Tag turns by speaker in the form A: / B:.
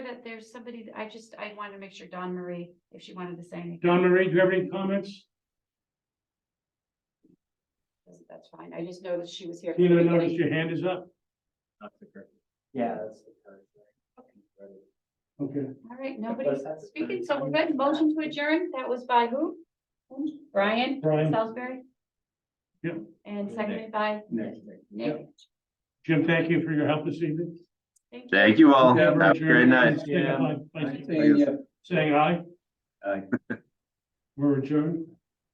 A: but there's somebody, that- I just, I wanted to make sure Dawn Marie, if she wanted to say anything,
B: Don Marie, do you have any comments?
A: that's fine. I just know that she was here. from the
B: Tina, I noticed
A: beginning.
B: your hand is up.
C: Yeah, that's the current.
B: Okay.
A: All right, nobody's speaking, so we're good. Motion to adjourn, that was by who? Brian
B: Brian,
A: Salisbury?
B: Yep.
A: And seconded by
B: Nick.
A: Nick.
B: Jim, thank you for your help this evening.
A: Thank you.
D: Thank you all.
B: Okay,
D: Oh, Have
B: we're
D: a great
B: adjourned.
D: night.
B: Please signify by
D: Thank you.
B: Saying aye,
C: Aye.
B: we're adjourned.